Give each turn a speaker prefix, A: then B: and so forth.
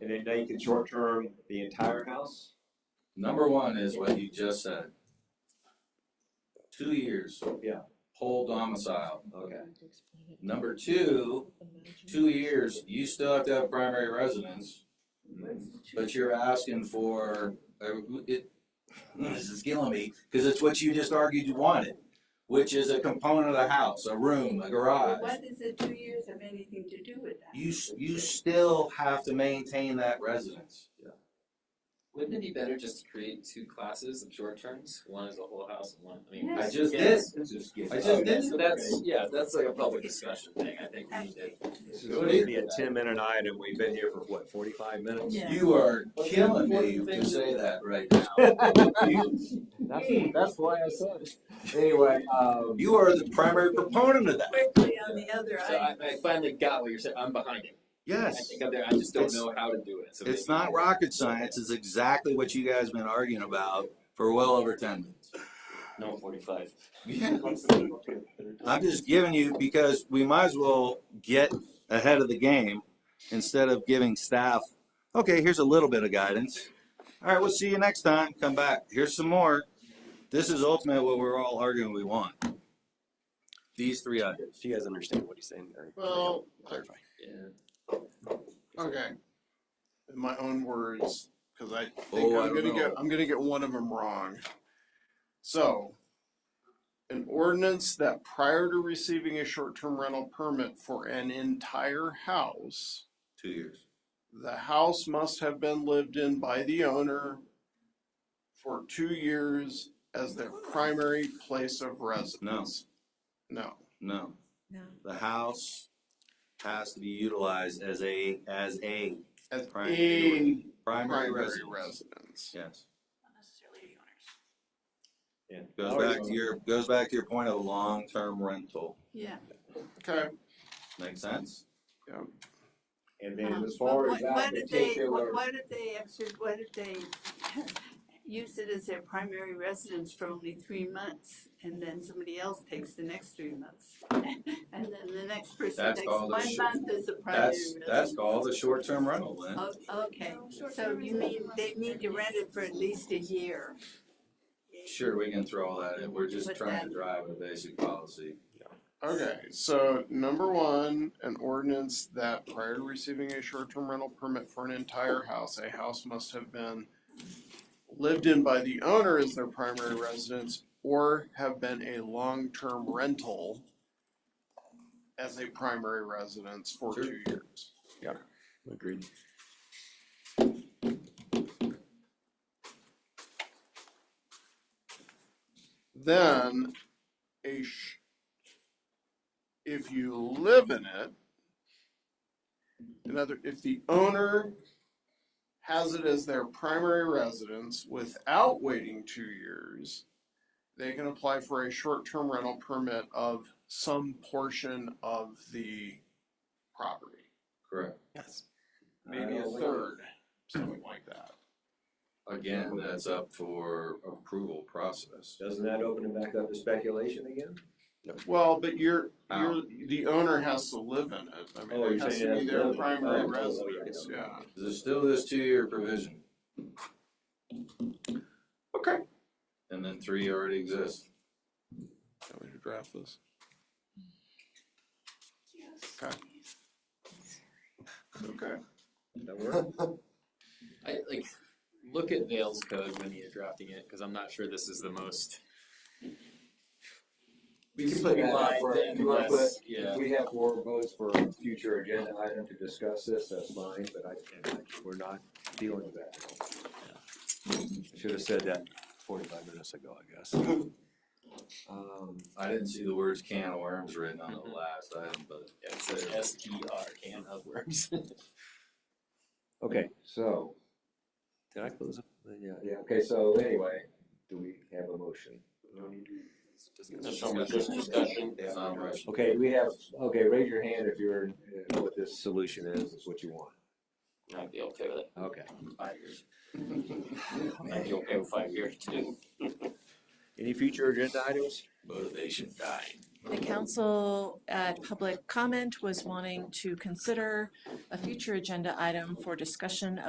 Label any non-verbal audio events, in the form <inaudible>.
A: And then now you can short term the entire house?
B: Number one is what you just said. Two years.
A: Yeah.
B: Whole domicile.
A: Okay.
B: Number two, two years, you still have to have primary residence, but you're asking for, uh, it, this is killing me, cause it's what you just argued you wanted, which is a component of the house, a room, a garage.
C: What does the two years have anything to do with that?
B: You, s- you still have to maintain that residence.
D: Wouldn't it be better just to create two classes of short terms? One is the whole house and one, I mean.
B: I
C: Yes.
B: just did,
D: Yes.
B: I just did.
D: That's, that's, yeah, that's like a public discussion thing, I think we need to.
A: This is gonna be a ten minute item, we've been here for what, forty-five <laughs> minutes?
C: Yeah.
B: You are killing me to say that right now. You-
E: That's, that's why I said it. Anyway, um,
B: You are the primary proponent of that.
C: Quickly on the other
D: So I,
C: item,
D: I finally got what you're saying, I'm behind it. I
B: Yes.
D: think I'm there, I just don't
B: It's-
D: know how to do it, so.
B: It's
D: maybe-
B: not rocket science, it's exactly what you guys been arguing about for well over ten minutes.
D: No, forty-five.
B: I'm just giving you, because we might as well get ahead of the game instead of giving staff, okay, here's a little bit of guidance. All right, we'll see you next time, come back, here's some more. This is ultimately what we're all arguing we want. These three items.
F: Do you guys understand what he's saying? Or
G: Well, uh,
F: clarify.
D: Yeah.
G: okay. In my own words, because I think
B: Oh, I
G: I'm
B: don't
G: gonna get
B: know.
G: I'm gonna get one of them wrong. So, an ordinance that prior to receiving a short-term rental permit for an entire house,
B: Two years.
G: the house must have been lived in by the owner for two years as their primary place of residence. No.
B: No,
C: no,
B: the house has to be utilized as a, as a
G: as a
B: Primary. primary
G: primary
B: residence.
G: residence.
B: Yes.
C: not necessarily the
A: Yeah.
C: owners.
B: Goes back to your, goes back to your point of long-term rental.
C: Yeah.
G: Okay,
B: Make sense?
A: And then
C: Um,
A: as far
C: but
A: as that uh,
C: what- What if they,
A: particular,
C: what what if they, actually- what if they <laughs> use it as their primary residence for only three months? And then somebody else takes the next three months, <laughs> and then the next person
B: That's
C: takes
B: called a
C: one
B: short-
C: month as a primary
B: That's,
C: residence.
B: that's called a short-term rental, Lynn.
C: Oh, okay, so you mean they need to rent it for at least a year?
B: Sure, we can throw all that in. We're just
C: But
B: trying
C: that-
B: to drive a basic policy.
G: okay, so number one, an ordinance that prior to receiving a short-term rental permit for an entire house, a house must have been lived in by the owner as their primary residence or have been a long-term rental as a primary residence for
B: Sure.
G: two years.
F: Agreed.
G: Then, a sh- if you live in it, another, if the owner has it as their primary residence without waiting two years, they can apply for a short-term rental permit of some portion of the property.
B: Correct.
F: Yes.
G: Maybe a third, something like that.
B: Again, that's up for approval process.
A: doesn't that open it back up to speculation again?
G: Well, but you're, you're,
B: How?
G: the owner has to live in it. I
A: Oh,
G: mean, it
A: you're
G: has
A: saying
G: to be
A: it has to live in
G: their
A: it. Oh,
G: primary
A: oh, yeah,
G: residence,
A: yeah.
G: yeah.
B: There's still this two-year provision.
G: Okay.
B: And then three already exists.
G: Can we draft this? Okay. Okay.
A: That work?
D: I like, look at Vale's code when you're drafting it, cause I'm not sure this is the most.
E: we can put that out for, if you wanna put,
D: Less-
E: if
D: Yeah,
E: we have more votes for a future agenda item to discuss this, that's fine, but I, we're not dealing with that.
F: I should have said that forty-five minutes ago, I guess.
E: Um,
B: I didn't see the words can of worms written on the last item, but
D: it's a S T R can of worms.
E: okay, so,
F: Did I close up? Yeah.
E: yeah, okay, so anyway, do we have a motion?
B: it's not a rush.
E: Okay, do we have, okay, raise your hand if you're, uh, what this solution is, is what you want.
D: I'd be okay with it,
E: Okay.
D: five years. I'd be okay with five years too.
E: Any future agenda items?
B: Motivation died.
H: The council at public comment was wanting to consider a future agenda item for discussion